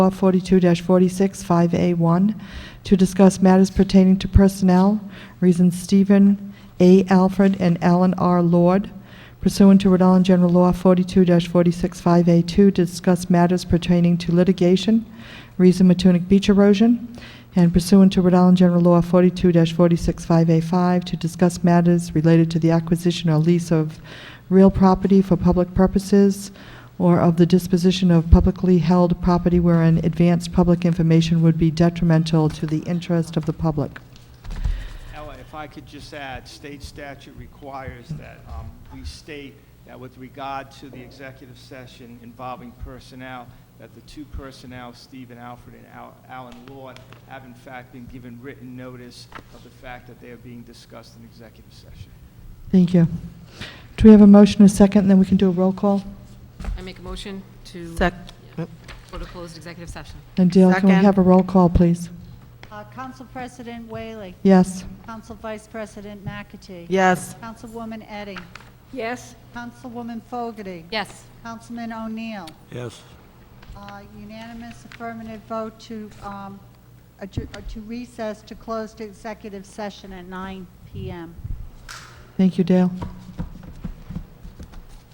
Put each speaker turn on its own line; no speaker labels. Law 42-46, 5A1, to discuss matters pertaining to personnel, reasons Stephen A. Alfred and Alan R. Lord pursuant to Rhode Island General Law 42-46, 5A2, to discuss matters pertaining to litigation, reason Matunic beach erosion, and pursuant to Rhode Island General Law 42-46, 5A5, to discuss matters related to the acquisition or lease of real property for public purposes, or of the disposition of publicly held property wherein advanced public information would be detrimental to the interest of the public.
Ella, if I could just add, state statute requires that um, we state that with regard to the executive session involving personnel, that the two personnel, Stephen Alfred and Al- Alan Lord, have in fact been given written notice of the fact that they are being discussed in executive session.
Thank you. Do we have a motion, a second, and then we can do a roll call?
I make a motion to
Sec,
go to closed executive session.
And Dale, can we
Second.
have a roll call, please?
Uh, Council President Whaley.
Yes.
Council Vice President McAtee.
yes,
Councilwoman Eddy.
Yes.
Councilwoman Fogarty.
Yes.
Councilman O'Neill.
Yes.
Uh, Unanimous affirmative vote to um, adjour- uh, to recess to close to executive session at 9 PM.
Thank you, Dale.